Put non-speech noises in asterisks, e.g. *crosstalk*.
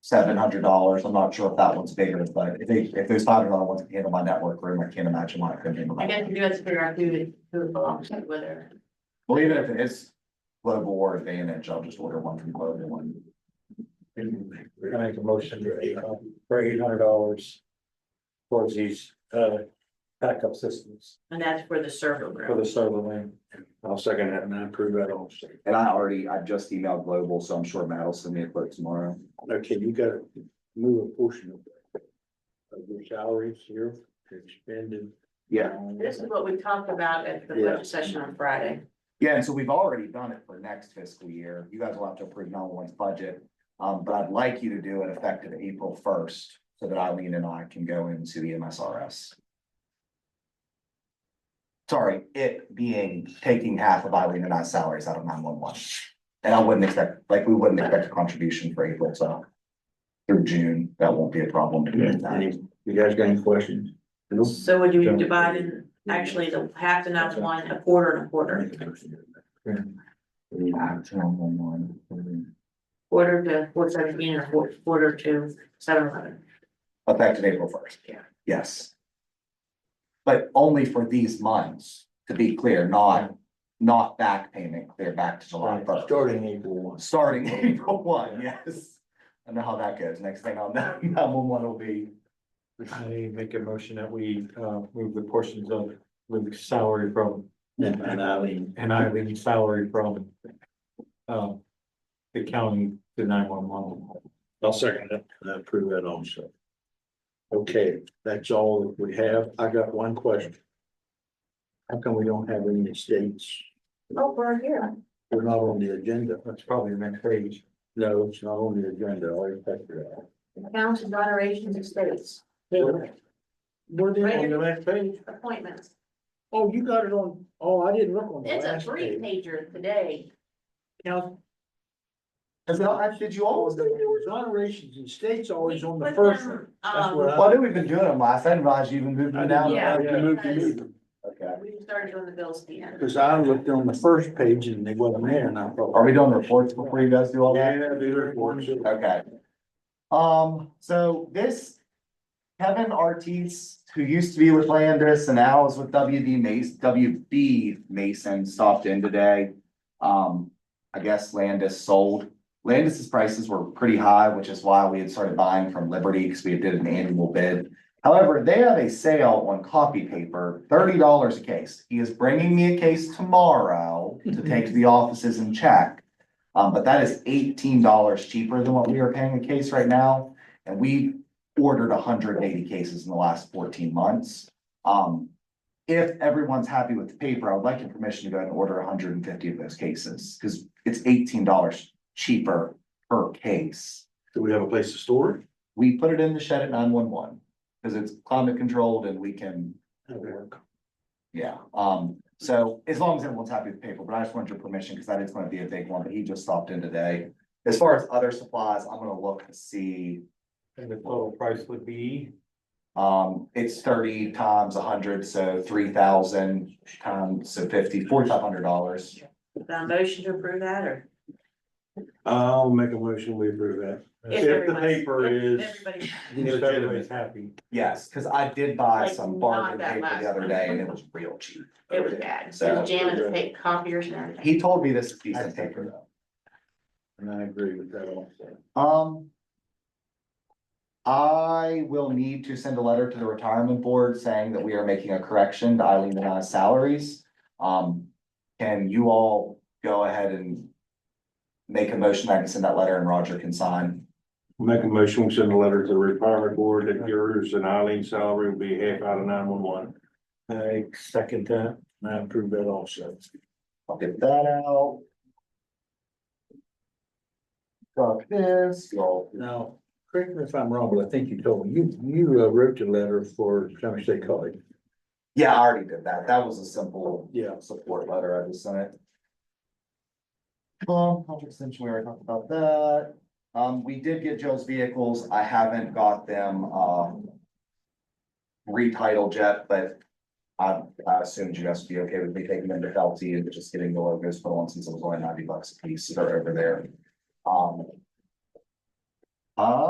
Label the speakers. Speaker 1: seven hundred dollars. I'm not sure if that one's bigger, but if they, if there's five hundred dollar ones can handle my network room, I can't imagine why I couldn't handle
Speaker 2: I guess
Speaker 1: that.
Speaker 2: you guys figure out who it, who it belongs to, whether.
Speaker 1: Well, even if it is global or advantage, I'll just order one from global one.
Speaker 3: We're gonna make a motion for eight, for eight hundred dollars. Towards these, uh, backup systems
Speaker 2: And that's for the server
Speaker 3: for
Speaker 2: room.
Speaker 3: the server lane. I'll second that and I approve that also.
Speaker 1: And I already, I just emailed global, so I'm sure Matt will send me a quote tomorrow.
Speaker 3: Okay, you gotta move a portion of. Of your salaries, your expended.
Speaker 1: Yeah,
Speaker 2: This is what we talked about at the
Speaker 3: Yeah.
Speaker 2: budget session on Friday.
Speaker 1: yeah, and so we've already done it for next fiscal year. You guys will have to approve no one's budget. Um, but I'd like you to do it effective April first, so that Eileen and I can go into the MSRS. Sorry, it being taking half of Eileen and I's salaries out of nine one one. And I wouldn't expect, like, we wouldn't expect a contribution for April, so. Through June, that won't be a problem to do that.
Speaker 3: Any- You guys got any questions?
Speaker 2: So would you divide in, actually, the half and half one, a quarter and a quarter,
Speaker 1: Out to 911.
Speaker 2: quarter to four seventeen and a quar- quarter to seven eleven?
Speaker 1: Effective April first.
Speaker 2: Yeah.
Speaker 1: Yes. But only for these months, to be clear, not, not back payment, clear back to July first.
Speaker 3: Starting April one.
Speaker 1: Starting April one, yes. I know how that goes. Next thing I'll know, *laughs* nine one one will be,
Speaker 3: I make a motion that we uh move the portions of Luke's salary from. And Eileen. And Eileen's salary from. Um. The county to nine one one. I'll second that, and approve that also. Okay, that's all that we have. I got one question. How come we don't have any estates?
Speaker 2: Oh, we're here.
Speaker 3: We're not on the agenda. That's probably the next page. No, it's not on the agenda. I'll check it out.
Speaker 2: Accounts and donations and states,
Speaker 3: We're there on the next page.
Speaker 2: appointments.
Speaker 3: Oh, you got it on, oh, I didn't look on. the
Speaker 2: It's a
Speaker 3: last
Speaker 2: three
Speaker 3: page.
Speaker 2: pager today.
Speaker 3: Now,
Speaker 1: is that, did you
Speaker 3: all
Speaker 1: always do?
Speaker 3: of
Speaker 1: it?
Speaker 3: the exonerations and states always on
Speaker 2: We
Speaker 3: the
Speaker 2: put
Speaker 3: first one.
Speaker 2: them,
Speaker 3: That's what
Speaker 2: Um,
Speaker 1: Well, I know we've been doing them last, and Raj you even moved them down.
Speaker 2: Yeah.
Speaker 3: You moved, you moved them.
Speaker 1: Okay.
Speaker 2: we started doing the bills at the end.
Speaker 3: Cause I looked on the first page and they wasn't there and I thought.
Speaker 1: Are we doing reports before
Speaker 3: *laughs*
Speaker 1: you guys do all that?
Speaker 3: Yeah, they were ones that-
Speaker 1: Okay. Um, so this Kevin Ortiz, who used to be with Landis and now is with WD Mason, WB Mason, stopped in today. Um, I guess Landis sold. Landis's prices were pretty high, which is why we had started buying from Liberty because we did an annual bid. However, they have a sale on copy paper, thirty dollars a case. He is bringing me a case tomorrow to take to the offices and check. Um, but that is eighteen dollars cheaper than what we are paying a case right now. And we ordered hundred and eighty cases in the last fourteen months. Um, if everyone's happy with the paper, I would like your permission to go ahead and order hundred and fifty of those cases, because it's eighteen dollars cheaper per case.
Speaker 3: Do we have a place to store it?
Speaker 1: We put it in the shed at nine one one, because it's climate controlled and we can,
Speaker 3: That'll work.
Speaker 1: yeah, um, so as long as everyone's happy with the paper, but I just wanted your permission, because that is gonna be a big one, but he just stopped in today. As far as other supplies, I'm gonna look to see,
Speaker 3: And the total price would be,
Speaker 1: um, it's thirty times hundred, so three thousand times, so fifty, forty-five hundred dollars.
Speaker 2: Is that a motion to approve that, or?
Speaker 4: I'll make a motion, we approve that.
Speaker 2: If
Speaker 4: the
Speaker 2: everyone-
Speaker 4: paper
Speaker 2: if
Speaker 4: is-
Speaker 2: everybody-
Speaker 3: if everybody's happy.
Speaker 1: Yes, because I did buy
Speaker 2: Like,
Speaker 1: some
Speaker 2: not
Speaker 1: bargain
Speaker 2: that
Speaker 1: paper
Speaker 2: last
Speaker 1: the other
Speaker 2: one.
Speaker 1: day and it was real cheap.
Speaker 2: It was bad,
Speaker 1: So-
Speaker 2: so Janet take copiers and everything.
Speaker 1: He told me this is decent paper though.
Speaker 3: And I agree with that also.
Speaker 1: Um. I will need to send a letter to the retirement board saying that we are making a correction to Eileen and I's salaries. Um, can you all go ahead and make a motion? I can send that letter and Roger can sign.
Speaker 4: Make a motion, we send a letter to the retirement board that yours and Eileen's salary will be half out of nine one one.
Speaker 3: I second that and I approve that also.
Speaker 1: I'll get that out. Got this, y'all.
Speaker 3: Now, correct me if I'm wrong, but I think you told me, you, you uh, wrote a letter for Clemens State College.
Speaker 1: Yeah, I already did that. That was a simple
Speaker 3: Yeah.
Speaker 1: support letter I just sent it. Um, contract extension, we already talked about that. Um, we did get Joe's vehicles. I haven't got them, um. Retitled yet, but I, I assumed you guys would be okay with me taking them to Felty and just getting the logos put on since it was only ninety bucks a piece. so They're over there. Um. I